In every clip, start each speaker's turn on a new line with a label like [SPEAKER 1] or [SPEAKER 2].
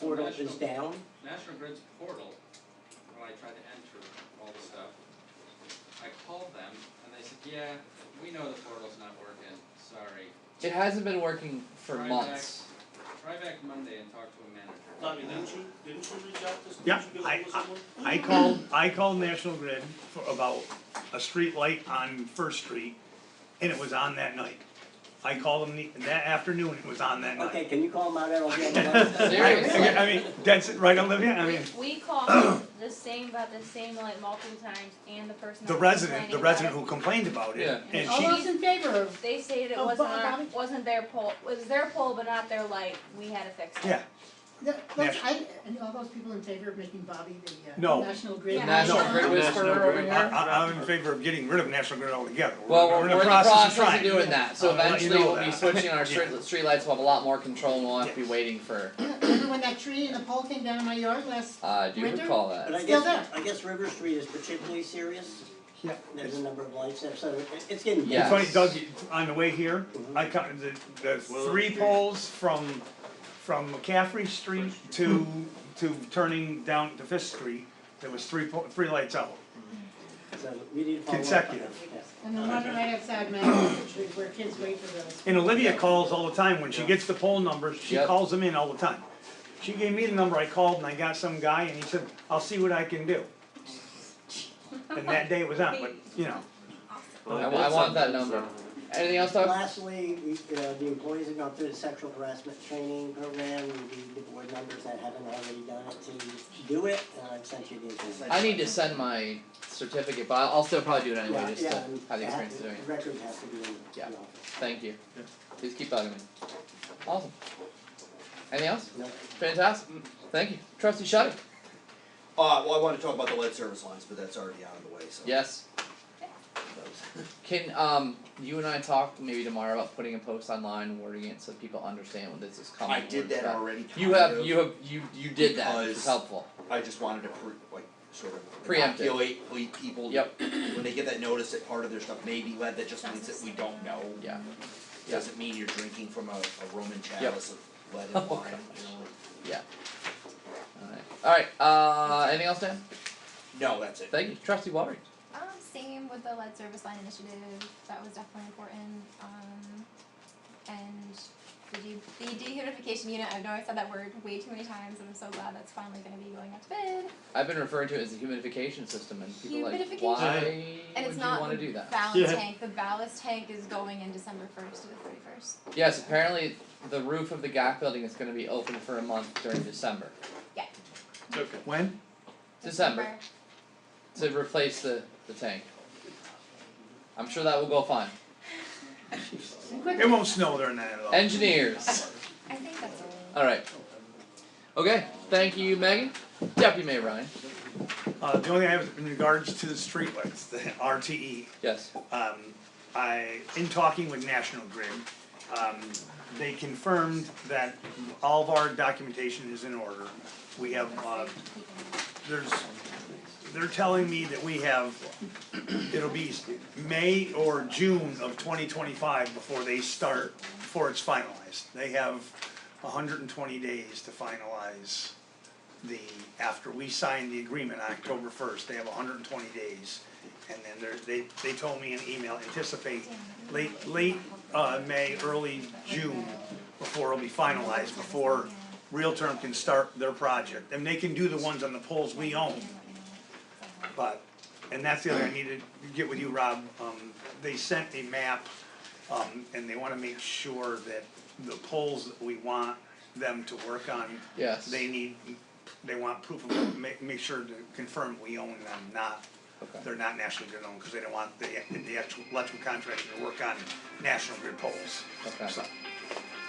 [SPEAKER 1] portal is
[SPEAKER 2] national-
[SPEAKER 1] down?
[SPEAKER 2] National Grid's portal, when I tried to enter all the stuff, I called them and they said, yeah, we know the portal's not working, sorry.
[SPEAKER 3] It hasn't been working for
[SPEAKER 2] Try
[SPEAKER 3] months.
[SPEAKER 2] Try back Monday and talk to a manager.
[SPEAKER 4] Tommy, didn't you, didn't you reach out to, did
[SPEAKER 5] Yeah,
[SPEAKER 4] you get
[SPEAKER 5] I-
[SPEAKER 4] ahold of someone?
[SPEAKER 5] I called, I called National Grid for about a street light on First Street, and it was on that night. I called them the, that afternoon, it was on that night.
[SPEAKER 1] Okay, can you call them out, I don't hear them.
[SPEAKER 3] Seriously?
[SPEAKER 5] I- I mean, that's it, right, Olivia, I
[SPEAKER 6] We,
[SPEAKER 5] mean,
[SPEAKER 6] we called the same, about the same light multiple times and the person.
[SPEAKER 5] the
[SPEAKER 6] that was
[SPEAKER 5] resident,
[SPEAKER 6] complaining
[SPEAKER 5] the
[SPEAKER 6] about
[SPEAKER 5] resident
[SPEAKER 6] it,
[SPEAKER 5] who complained about
[SPEAKER 3] Yeah.
[SPEAKER 5] it, and
[SPEAKER 6] All
[SPEAKER 5] she,
[SPEAKER 6] those-
[SPEAKER 7] in favor of?
[SPEAKER 6] They stated it
[SPEAKER 7] Oh,
[SPEAKER 6] wasn't
[SPEAKER 7] bu-
[SPEAKER 6] our,
[SPEAKER 7] Bobby?
[SPEAKER 6] wasn't their pole, it was their pole, but not their light, we had to fix it.
[SPEAKER 5] yeah,
[SPEAKER 7] the- those- I- And all those people in favor of making Bobby the uh,
[SPEAKER 5] No. Uh,
[SPEAKER 7] National Grid?
[SPEAKER 6] The
[SPEAKER 3] National
[SPEAKER 7] liaison?
[SPEAKER 3] Grid Whisperer over here.
[SPEAKER 5] I, I- I'm in favor of getting rid of National Grid altogether.
[SPEAKER 3] Well, we're,
[SPEAKER 5] in the
[SPEAKER 3] process
[SPEAKER 5] process of trying.
[SPEAKER 3] doing that, so
[SPEAKER 5] I'll let you
[SPEAKER 3] eventually
[SPEAKER 5] know
[SPEAKER 3] we'll be
[SPEAKER 5] that.
[SPEAKER 3] switching our
[SPEAKER 5] Yeah.
[SPEAKER 3] street, streetlights, we'll have a lot more control and we'll have to be waiting for,
[SPEAKER 7] Remember when that tree and the pole came down in my yard last,
[SPEAKER 3] uh, I do
[SPEAKER 7] Winter?
[SPEAKER 3] recall
[SPEAKER 1] But
[SPEAKER 3] that.
[SPEAKER 1] I
[SPEAKER 7] Still
[SPEAKER 1] guess,
[SPEAKER 7] there.
[SPEAKER 1] I guess River Street is particularly serious,
[SPEAKER 5] Yeah.
[SPEAKER 1] there's a number of lights there, so it- it's getting
[SPEAKER 3] Yeah.
[SPEAKER 1] bad.
[SPEAKER 5] It's funny, Doug, you- on the way here, I counted the, the three poles from, from McCaffrey Street to, to turning down to Fifth Street, there was three, po- three lights out.
[SPEAKER 1] so we need to follow up on
[SPEAKER 5] Consecutive.
[SPEAKER 1] that, yes.
[SPEAKER 7] and the one right outside my house, which where kids wait for those?
[SPEAKER 5] And Olivia calls all the time, when she gets the poll numbers, she
[SPEAKER 3] Yep.
[SPEAKER 5] calls them in all the time. She gave me the number, I called and I got some guy and he said, I'll see what I can do. And that day it was on, but, you know,
[SPEAKER 3] I- I want that number. Anything else, Doug?
[SPEAKER 1] Lastly, we, uh, the employees have gone through the sexual harassment training program, the, the board members that haven't already done it to do it, and I've sent you the information.
[SPEAKER 3] I need to send my certificate, but I'll I'll still probably do it
[SPEAKER 1] Yeah,
[SPEAKER 3] anyway, just
[SPEAKER 1] yeah,
[SPEAKER 3] to
[SPEAKER 1] and
[SPEAKER 3] have the
[SPEAKER 1] it has
[SPEAKER 3] experience
[SPEAKER 1] to-
[SPEAKER 3] doing it.
[SPEAKER 1] the Record has to be in the
[SPEAKER 3] Yeah.
[SPEAKER 1] office.
[SPEAKER 3] Thank you. Please keep bugging me. Awesome. Anything else?
[SPEAKER 1] No.
[SPEAKER 3] Fantastic. Thank you. Trustee Shetty?
[SPEAKER 8] Uh, well, I wanna talk about the lead service lines, but that's already out of the way, so.
[SPEAKER 3] Yes. Can, um, you and I talk maybe tomorrow about putting a post online, wording it so people understand when this is coming?
[SPEAKER 8] I did that
[SPEAKER 3] word's up?
[SPEAKER 8] already,
[SPEAKER 3] You
[SPEAKER 8] kind
[SPEAKER 3] have,
[SPEAKER 8] of.
[SPEAKER 3] you have, you, you did that, which is
[SPEAKER 8] Because-
[SPEAKER 3] helpful.
[SPEAKER 8] I just wanted to pre, like, sort of
[SPEAKER 3] Preempt it.
[SPEAKER 8] inoculate ple- people.
[SPEAKER 3] Yep.
[SPEAKER 8] When they get that notice that part of their stuff may be lead, that just means that we don't know.
[SPEAKER 3] Yeah.
[SPEAKER 8] Doesn't mean you're drinking from a, a Roman chalice of lead and
[SPEAKER 3] Oh,
[SPEAKER 8] wine, you know,
[SPEAKER 3] Alright, alright, uh, anything else, Dan?
[SPEAKER 8] no, that's it.
[SPEAKER 3] Thank you. Trustee Walry?
[SPEAKER 9] Um, same with the lead service line initiative, that was definitely important, um, and the de- the dehumidification unit, I've know I've said that word way too many times, and I'm so glad that's finally gonna be going out to bid.
[SPEAKER 3] I've been referring to it as a humidification system and people are like,
[SPEAKER 9] Humidification.
[SPEAKER 3] why
[SPEAKER 9] And
[SPEAKER 3] would
[SPEAKER 9] it's
[SPEAKER 3] you
[SPEAKER 9] not
[SPEAKER 3] wanna
[SPEAKER 9] the
[SPEAKER 3] do that?
[SPEAKER 9] ballast tank, the ballast tank is going in December first to the thirty first,
[SPEAKER 3] Yes, apparently the roof of the GAC building is gonna be open for a month during December,
[SPEAKER 2] Okay.
[SPEAKER 5] when?
[SPEAKER 3] December. to replace the, the tank. I'm sure that will go fine.
[SPEAKER 5] It won't snow during that at all.
[SPEAKER 3] Engineers.
[SPEAKER 9] I think that's all.
[SPEAKER 3] All right. Okay. Thank you, Megan. Deputy Mayor Ryan.
[SPEAKER 5] Uh, the only thing I have in regards to the streetlights, the RTE,
[SPEAKER 3] Yes.
[SPEAKER 5] um, I, in talking with National Grid, um, they confirmed that all of our documentation is in order. We have, uh, there's, they're telling me that we have, it'll be May or June of twenty twenty-five before they start, before it's finalized. They have hundred and twenty days to finalize the, after we sign the agreement on October first, they have hundred and twenty days. And then they're, they, they told me in email, anticipate late, late, uh, May, early June before it'll be finalized, before Realterm can start their project. And they can do the ones on the poles we own, but, and that's the other, I need to get with you, Rob, um, they sent a map, um, and they wanna make sure that the poles that we want them to work on
[SPEAKER 3] Yes.
[SPEAKER 5] they need, they want proof of, make, make sure to confirm we own them, not,
[SPEAKER 3] Okay.
[SPEAKER 5] they're not National Grid owned, cause they don't want the, the actual electrical contractor to work on National Grid poles.
[SPEAKER 3] Okay.
[SPEAKER 5] So-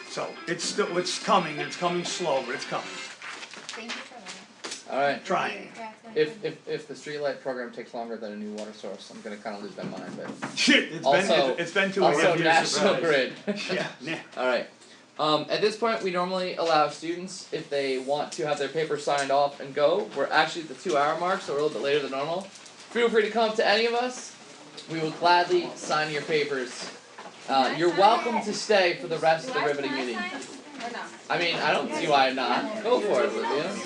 [SPEAKER 5] So, it's still, it's coming, it's coming slow, but it's coming,
[SPEAKER 9] Thank you for that.
[SPEAKER 3] All right.
[SPEAKER 5] trying.
[SPEAKER 9] Yeah, it's gonna
[SPEAKER 3] If
[SPEAKER 9] be-
[SPEAKER 3] if if the streetlight program takes longer than a new water source, I'm gonna kind of lose my mind. But
[SPEAKER 5] Shit, it's been,
[SPEAKER 3] Also-
[SPEAKER 5] it's- it's been two and a
[SPEAKER 3] also
[SPEAKER 5] half years.
[SPEAKER 3] National Grid.
[SPEAKER 5] Yeah, nah.
[SPEAKER 3] All right. Um, at this point, we normally allow students, if they want to have their paper signed off and go, we're actually at the two hour mark, so we're a little bit later than normal. Feel free to come to any of us. We will gladly sign your papers. Uh,
[SPEAKER 9] Can I
[SPEAKER 3] you're
[SPEAKER 9] sign
[SPEAKER 3] welcome
[SPEAKER 9] it?
[SPEAKER 3] to stay for the rest of the riveting meeting.
[SPEAKER 9] Do I, can I sign?
[SPEAKER 6] or not?
[SPEAKER 3] I mean, I don't see why not. Go for it, Olivia.